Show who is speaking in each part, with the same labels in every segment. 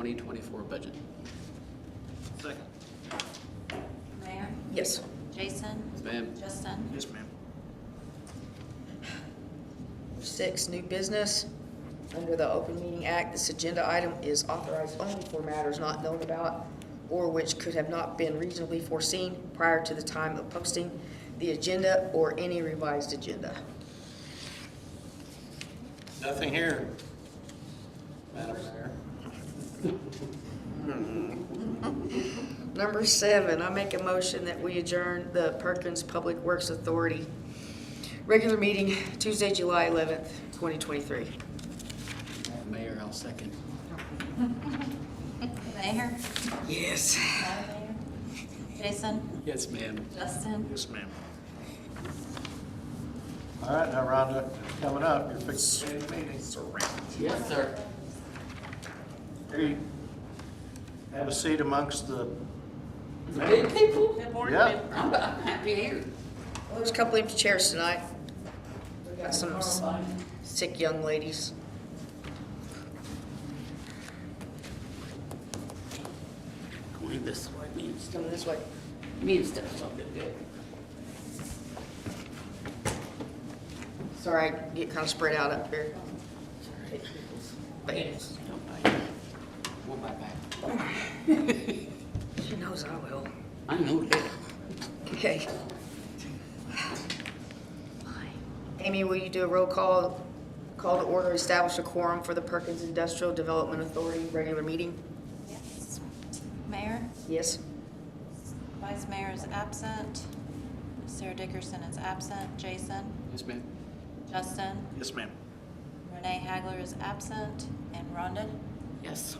Speaker 1: 2024 budget.
Speaker 2: Second.
Speaker 3: Mayor,
Speaker 4: Yes.
Speaker 3: Jason,
Speaker 1: Yes, ma'am.
Speaker 3: Justin,
Speaker 2: Yes, ma'am.
Speaker 4: Six, new business. Under the Open Meeting Act, this agenda item is authorized only for matters not known about or which could have not been reasonably foreseen prior to the time of posting the agenda or any revised agenda.
Speaker 1: Nothing here. Madam Mayor.
Speaker 4: Number seven, I make a motion that we adjourn the Perkins Public Works Authority regular meeting Tuesday, July 11th, 2023.
Speaker 1: Mayor, I'll second.
Speaker 3: Mayor,
Speaker 4: Yes.
Speaker 3: Jason,
Speaker 1: Yes, ma'am.
Speaker 3: Justin,
Speaker 2: Yes, ma'am. All right, now Rhonda, coming up, you're fixing to the meeting.
Speaker 1: Yes, sir.
Speaker 2: Here you Have a seat amongst the,
Speaker 1: Good people.
Speaker 2: yeah.
Speaker 1: I'm I'm happy here.
Speaker 4: Well, There's a couple empty chairs tonight. We got some s- sick young ladies.
Speaker 1: Going this way means,
Speaker 4: Coming this way.
Speaker 1: means that's not good, good.
Speaker 4: Sorry, I get kind of spread out up here. But
Speaker 1: Don't bite me. Won't bite back.
Speaker 4: she knows I will.
Speaker 1: I know that.
Speaker 4: Okay. Amy, will you do a roll call, call to order, establish a quorum for the Perkins Industrial Development Authority regular meeting?
Speaker 3: yes. Mayor,
Speaker 4: Yes?
Speaker 3: Vice Mayor is absent, Sarah Dickerson is absent, Jason,
Speaker 1: Yes, ma'am.
Speaker 3: Justin,
Speaker 2: Yes, ma'am.
Speaker 3: Renee Hagler is absent, and Rhonda.
Speaker 1: Yes.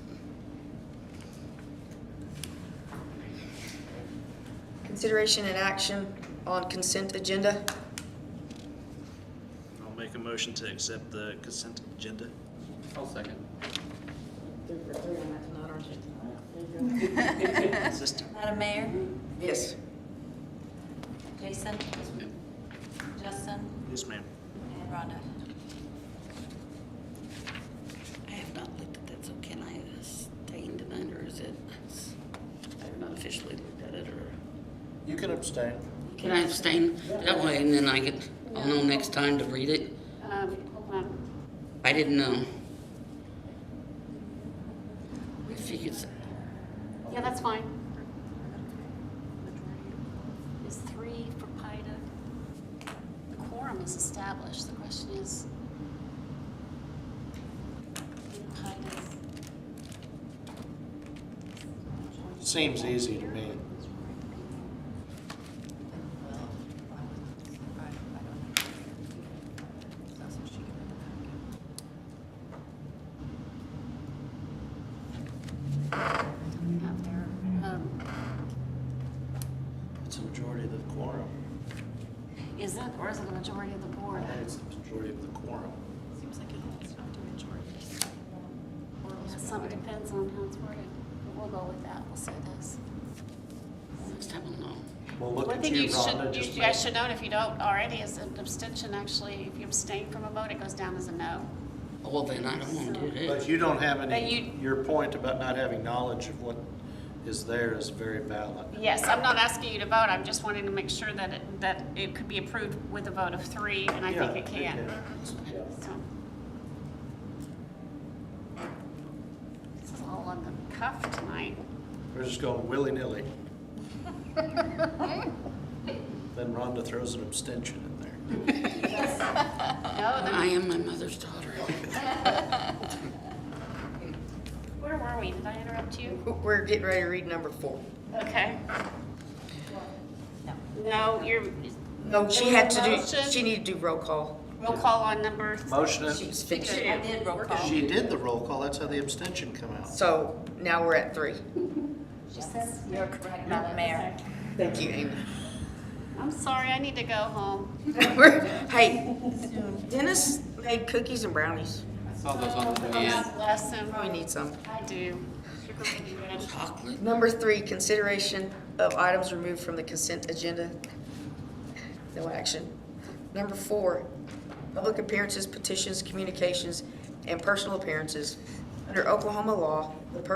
Speaker 4: Consideration and action on consent agenda?
Speaker 2: I'll make a motion to accept the consent agenda.
Speaker 1: I'll second.
Speaker 3: Madam Mayor,
Speaker 4: Yes.
Speaker 3: Jason,
Speaker 1: Yes, ma'am.
Speaker 3: Justin,
Speaker 2: Yes, ma'am.
Speaker 3: and Rhonda.
Speaker 5: I have not looked at that, so can I abstain tonight, or is it, I've not officially looked at it, or?
Speaker 2: You can abstain.
Speaker 5: Can I abstain that way, and then I get, I'll know next time to read it?
Speaker 6: Um, hold on.
Speaker 5: I didn't know. If you could, s-
Speaker 6: Yeah, that's fine. Is three for PIDA? The quorum is established. The question is, in PIDA.
Speaker 2: Seems easy to me.
Speaker 6: Out there. Um,
Speaker 2: It's a majority of the quorum.
Speaker 6: Is it, or is it a majority of the board?
Speaker 2: It's the majority of the quorum.
Speaker 6: Seems like it has to be majority. Or Some, it depends on how it's worded, but we'll go with that, we'll say this.
Speaker 5: next time I'll know.
Speaker 2: Well, look
Speaker 6: One
Speaker 2: at
Speaker 6: thing
Speaker 2: you,
Speaker 6: you
Speaker 2: Rhonda,
Speaker 6: should, you
Speaker 2: just.
Speaker 6: should- I should note, if you don't already, is an abstention actually, if you abstain from a vote, it goes down as a no.
Speaker 5: Oh, Well, then I don't wanna do
Speaker 2: But
Speaker 5: that.
Speaker 2: you don't have
Speaker 6: But
Speaker 2: any,
Speaker 6: you-
Speaker 2: your point about not having knowledge of what is there is very valid.
Speaker 6: Yes, I'm not asking you to vote, I'm just wanting to make sure that it, that it could be approved with a vote of three, and I
Speaker 2: Yeah,
Speaker 6: think it can. So This is all on the cuff tonight.
Speaker 2: We're just going willy-nilly. Then Rhonda throws an abstention in there.
Speaker 6: No, then-
Speaker 5: I am my mother's daughter.
Speaker 6: where were we? Did I interrupt you?
Speaker 4: We're getting ready to read number four.
Speaker 6: Okay. No, you're,
Speaker 4: No, she
Speaker 6: There was
Speaker 4: had
Speaker 6: a
Speaker 4: to do,
Speaker 6: motion.
Speaker 4: she needed to do roll call.
Speaker 6: roll call on number,
Speaker 2: Motion,
Speaker 4: She
Speaker 2: it-
Speaker 4: was finished.
Speaker 3: I did roll call.
Speaker 2: she did the roll call, that's how the abstention come out.
Speaker 4: So now we're at three.
Speaker 3: You're correct, Madam Mayor.
Speaker 4: Thank you, Amy.
Speaker 6: I'm sorry, I need to go home.
Speaker 4: We're- Hey, Dennis made cookies and brownies.
Speaker 1: I saw those on the way in.
Speaker 6: God bless him.
Speaker 4: Probably need some.
Speaker 6: I do. Sugar baby bread.
Speaker 5: Chocolate?
Speaker 4: Number three, consideration of items removed from the consent agenda. No action. Number four, public appearances, petitions, communications, and personal appearances. Under Oklahoma law, the person